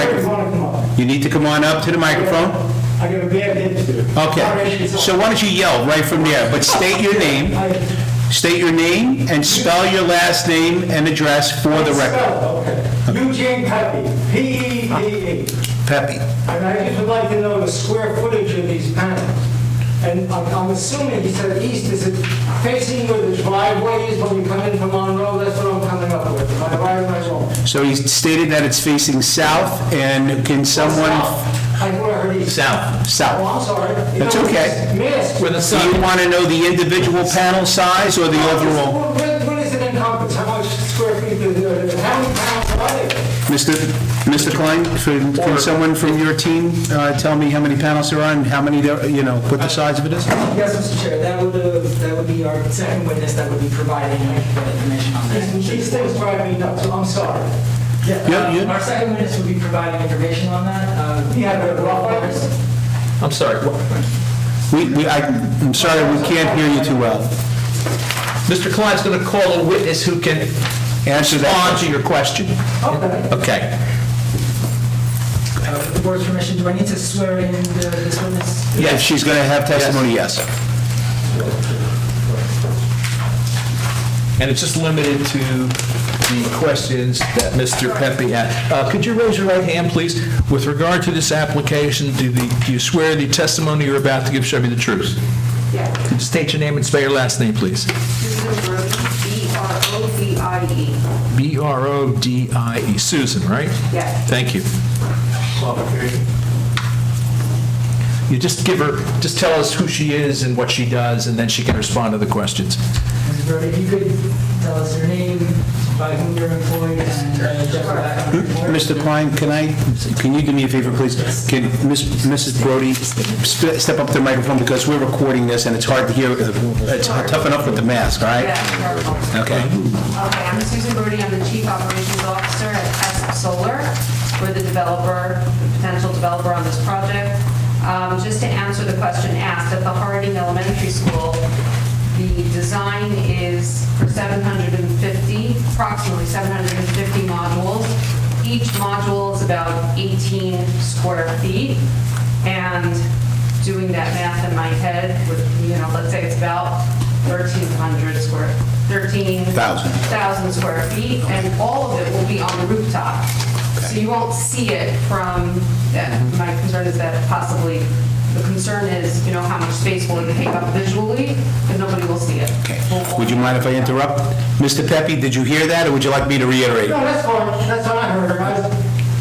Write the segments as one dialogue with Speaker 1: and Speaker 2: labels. Speaker 1: Microphone.
Speaker 2: I
Speaker 1: You need to come on up to the microphone?
Speaker 2: got a bad head.
Speaker 1: Okay. So why don't you yell right from there, but state your name, state your name and spell your last name and address for the record.
Speaker 2: record. Eugene Pepe, P-E-P-E.
Speaker 1: Pepe.
Speaker 2: E. And I just would like to know the square footage of these panels. And I'm- I'm assuming, he said east, is it facing where the driveway is when you come in from Monroe? That's what I'm coming up with. Am I right or am I wrong?
Speaker 1: So he stated that it's facing south, and can someone...
Speaker 2: South. I thought I heard east.
Speaker 1: South.
Speaker 2: Oh,
Speaker 1: South.
Speaker 2: I'm sorry. You
Speaker 1: That's
Speaker 2: know,
Speaker 1: okay.
Speaker 2: it's Missed.
Speaker 3: the
Speaker 1: Do you want to know the individual panel size or the overall?
Speaker 2: What- what- What is it encompass? How much square feet is it? How many panels are there?
Speaker 1: Mr. Mr. Klein, can can someone from your team uh, tell me how many panels there are and how many, there- you know, what the size of it is?
Speaker 4: Yes, Mr. Chair, that would, uh, that would be our second witness that would be providing information on
Speaker 2: These
Speaker 4: that.
Speaker 2: things drive me nuts, I'm sorry.
Speaker 1: Yeah,
Speaker 4: Yeah,
Speaker 1: yeah.
Speaker 4: uh, Our second witness would be providing information on that. Uh,
Speaker 2: You have a rough idea?
Speaker 3: I'm sorry, what-
Speaker 1: We, we- I- I'm sorry, we can't hear you too well.
Speaker 3: Mr. Klein's going to call a witness who can
Speaker 1: Answer
Speaker 3: respond
Speaker 1: that.
Speaker 3: to your question.
Speaker 2: Okay.
Speaker 3: Okay.
Speaker 4: uh, With the board's permission, do I need to swear in the- this witness?
Speaker 1: If she's going to have testimony, yes.
Speaker 3: And it's just limited to the questions that Mr. Pepe had. Uh, Could you raise your right hand, please? With regard to this application, do the- do you swear the testimony you're about to give shall be the truth?
Speaker 5: Yeah,
Speaker 3: State your name and spell your last name, please.
Speaker 5: Susan Brody, B-R-O-D-I-E.
Speaker 3: B-R-O-D-I-E, Susan, right?
Speaker 5: Yes.
Speaker 3: Thank you. You just give her, just tell us who she is and what she does, and then she can respond to the questions.
Speaker 4: Mrs. Brody, if you could tell us your name, by whom you're employed, and uh, just your background. report.
Speaker 1: Mr. Klein, can I, can you do me a favor, please? Can Miss- Mrs. Brody sp- step up to the microphone because we're recording this and it's hard to hear, uh, it's tough enough with the mask, all right?
Speaker 5: Yeah, no problem.
Speaker 1: Okay.
Speaker 5: Okay, I'm Susan Brody, I'm the Chief Operations Officer at Aspen Solar. We're the developer, the potential developer on this project. Um, Just to answer the question asked, at the Harding Elementary School, the design is for 750, approximately 750 modules. Each module is about 18 square feet, and doing that math in my head, with, you know, let's say it's about 1,300 square, 13...
Speaker 1: Thousand.
Speaker 5: 1,000 square feet, and all of it will be on the rooftop. So you won't see it from, that. my concern is that possibly, the concern is, you know, how much space will it take up visually, and nobody will see it.
Speaker 1: Okay. Would you mind if I interrupt? Mr. Pepe, did you hear that or would you like me to reiterate?
Speaker 2: No, that's fine, that's what I heard, I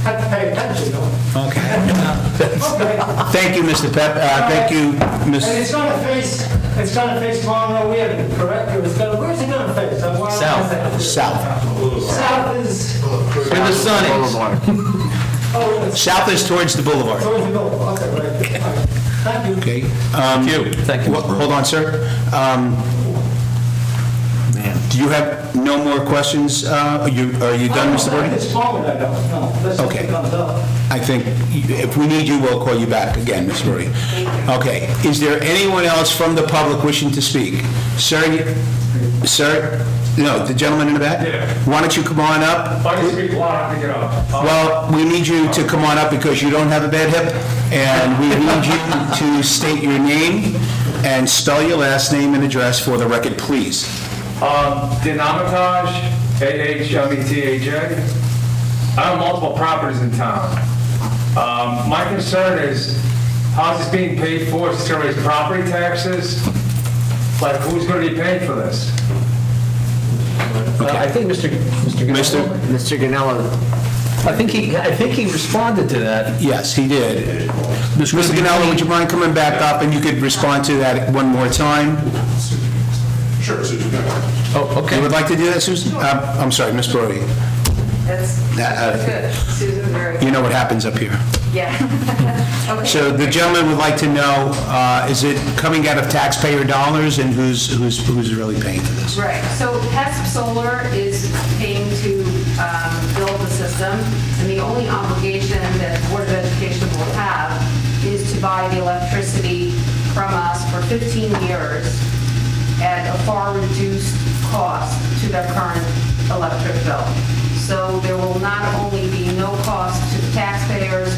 Speaker 2: had to pay attention, though.
Speaker 1: Okay.
Speaker 2: Okay,
Speaker 1: Thank you, Mr. Pep, uh, thank you,
Speaker 2: and
Speaker 1: Ms.
Speaker 2: it's gonna face, it's gonna face Monroe Avenue, correct? Or it's gonna, where's it gonna face? I wanna-
Speaker 3: South.
Speaker 1: South.
Speaker 2: South is,
Speaker 3: Where the sun is.
Speaker 2: oh, it's
Speaker 1: South is towards the boulevard.
Speaker 2: towards the middle, okay, right. All right. Thank you.
Speaker 1: Okay. Thank you.
Speaker 3: Thank you.
Speaker 1: Hold on, sir. Um, Do you have no more questions? Uh, Are you are you
Speaker 2: I
Speaker 1: done, Mr.
Speaker 2: don't think
Speaker 1: Brody?
Speaker 2: It's falling, I don't, no, that's just
Speaker 1: Okay.
Speaker 2: it comes up.
Speaker 1: I think if we need you, we'll call you back again, Mr. Brody. Okay. Is there anyone else from the public wishing to speak? Sir, you- sir, no, the gentleman in the back?
Speaker 6: Yeah.
Speaker 1: Why don't you come on up?
Speaker 6: I can speak loud, I can get up. Uh,
Speaker 1: Well, we need you to come on up because you don't have a bad hip, and we need you to state your name and spell your last name and address for the record, please.
Speaker 6: Um, Dinamitag, E A-H-M-E-T-A-J. I own multiple properties in town. Um, my concern is, how's this being paid for? Is it gonna raise property taxes? Like, who's gonna be paying for this?
Speaker 3: Uh, I think Mr.
Speaker 1: Mr.
Speaker 7: Mr. Ganello,
Speaker 3: I think he, I think he responded to that.
Speaker 1: Yes, he did. Mr. Ganello, would you mind coming back up, and you could respond to that one more time?
Speaker 3: Oh,
Speaker 1: You
Speaker 3: okay.
Speaker 1: would like to do that, Susan? Uh, I'm sorry, Ms. Brody.
Speaker 5: That's
Speaker 1: That, uh,
Speaker 5: that's good, Susan Brody,
Speaker 1: You know what happens up here.
Speaker 5: yeah. Okay.
Speaker 1: So the gentleman would like to know, uh, is it coming out of taxpayer dollars, and who's who's who's really paying for this?
Speaker 5: Right, so HESP Solar is paying to um, build the system, and the only obligation that the Board of Education will have is to buy the electricity from us for 15 years at a far reduced cost to their current electric bill. So So there will not only be no cost to the taxpayers